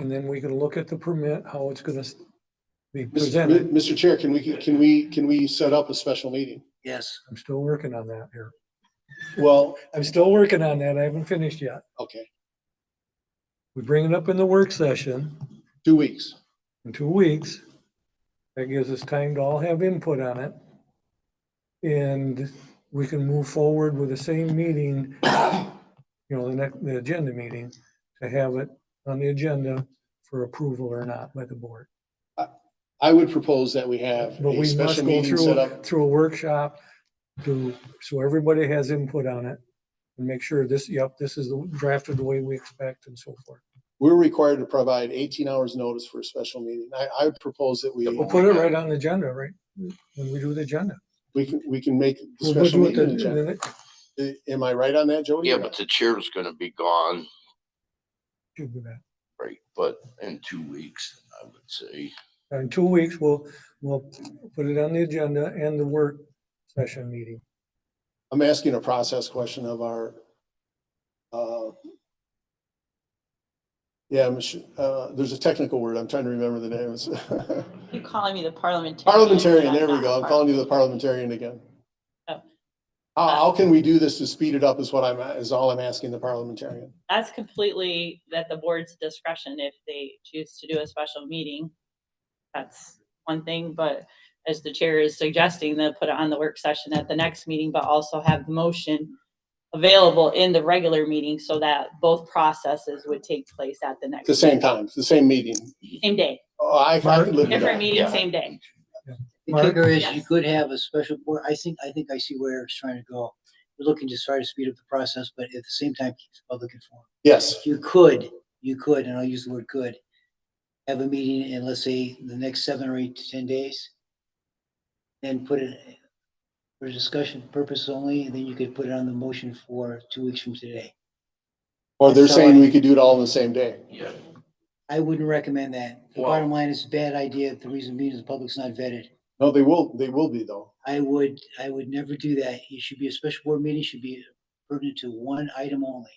And then we can look at the permit, how it's gonna s- be Mr. Mi- presented. Mr. Chair, can we, can we, can we set up a special meeting? Yes, I'm still working on that here. Well, I'm still working on that. I haven't finished yet. okay, We bring it up in the work session two weeks. in two weeks. That gives us time to all have input on it. And we can move forward with the same meeting, you know, the next, the agenda meeting, to have it on the agenda for approval or not by the board. I would propose that we have But a we must special go meeting set through, up. through a workshop to, so everybody has input on it and make sure this, yep, this is the- drafted the way we expect and so forth. We're required to provide eighteen hours notice for a special meeting. I, I would propose that we, We'll put it right on the agenda, right? When we do the agenda. we can, we can make the We'll do special it meeting. the- agenda. the- I- Am I right on that, Jody? Yeah, but the chair's gonna be gone, should be that. right, but in two weeks, I would say. In two weeks, we'll, we'll put it on the agenda and the work session meeting. I'm asking a process question of our, uh, yeah, Mich- uh, there's a technical word. I'm trying to remember the name. It's- You're calling me the parliamentarian. Parliamentarian, but there we not go. I'm calling you the parliamentarian again. How, Oh. how can we do this to speed it up is what I'm, is all I'm asking the parliamentarian. That's completely at the board's discretion if they choose to do a special meeting. That's one thing, but as the chair is suggesting, they'll put it on the work session at the next meeting, but also have the motion available in the regular meeting so that both processes would take place at the At next The same time, it's the same meeting. same day, Oh, I, I could live with different that. meeting, Yeah. same day. the Mark? kicker is you Yes. could have a special board. I think, I think I see where it's trying to go. We're looking to try to speed up the process, but at the same time, keep the public informed. Yes, You could, you could, and I'll use the word could, have a meeting in, let's say, the next seven or eight to ten days. Then put it for discussion purpose only, and then you could put it on the motion for two weeks from today. or they're That's how saying I- we could do it all in the same day. Yeah. I wouldn't recommend that. The Well- bottom line is a bad idea. The reason being is the public's not vetted. No, they will, they will be though. I would, I would never do that. It should be a special board meeting, should be pertinent to one item only.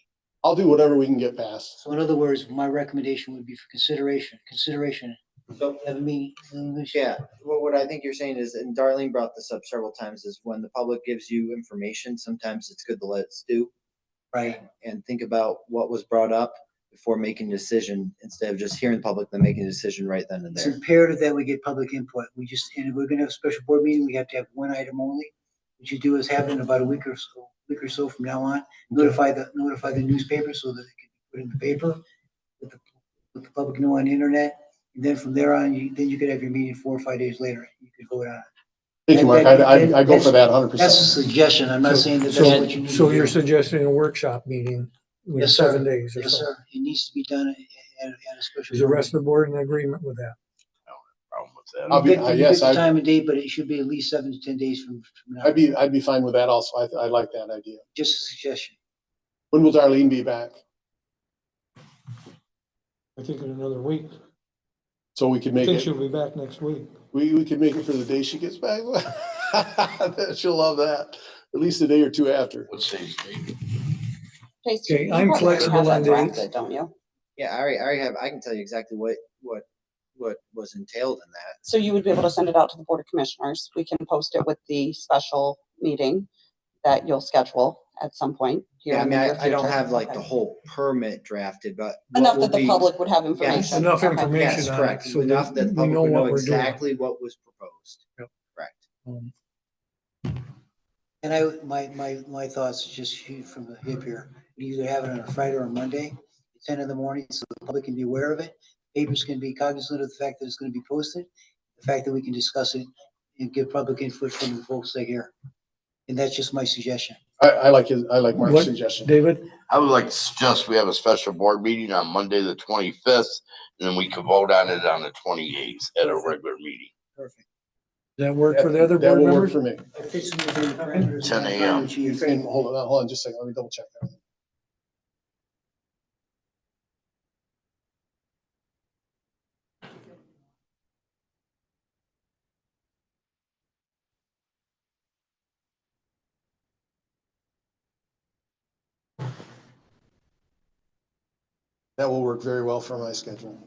I'll do whatever we can get past. So in other words, my recommendation would be for consideration, consideration. So- Have a meeting. have a- Yeah, what, what I think you're saying is, and Darlene brought this up several times, is when the public gives you information, sometimes it's good to let it stew Right. and think about what was brought up before making a decision, instead of just hearing the public, then making a decision right then and It's there. imperative that we get public input. We just, and if we're gonna have a special board meeting, we have to have one item only. What you do is have it in about a week or so, week or so from now on, notify the, notify the newspaper so that it can be put in the paper. Let the, let the public know on the internet. And then from there on, you, then you could have your meeting four or five days later. You could vote on it. Thank you, Mark. I, I, I go for that hundred That's a percent. suggestion. I'm not So- saying that that's so- what you need to do. So you're suggesting a workshop meeting with Yes, sir. seven days or Yes, so. sir. It needs to be done at, at at a special. Is the board rest of the board in agreement with that? Problem with that. I'll meeting. be- You pick- uh, you yes, pick the I- Time and date, but it should be at least seven to ten days from from now. I'd be, I'd be fine with that also. I, I like that idea. Just a suggestion. When will Darlene be back? I think in another week. So we could I make think it, she'll be back next week. we, we could make it for the day she gets back. She'll love that. At least a day or two after. What's his name? Jason, Okay, you I'm probably flexible have that on dates. drafted, Don't you? Yeah, I already, I already have, I can tell you exactly what, what, what was entailed in that. So you would be able to send it out to the Board of Commissioners. We can post it with the special meeting that you'll schedule at some point. here Yeah, I in the mean, I, near I don't future. have like the Okay. whole permit drafted, but. what Enough will that the be- public would have information. Enough Okay. information Yes, on it correct. so Enough that we the public know would what know we're doing. exactly what was proposed. Yep. Correct. Um, And I, my, my, my thoughts just shoot from the hip here. You Either have it on a Friday or a Monday, ten in the morning, so the public can be aware of it. Papers can be cognizant of the fact that it's gonna be posted, the fact that we can discuss it and give public input from the folks that hear. And that's just my suggestion. I, I like his, I like Mark's What- suggestion. David, I would like to suggest we have a special board meeting on Monday, the twenty-fifth, and then we can vote on it on the twenty-eighth at a regular meeting. Perfect. does that work for the other That board will members? work for me. If it's within the parameters of 10 the a.m. time you And think- hold on, hold on just a second. Let me double check. that. That will work very well for my schedule.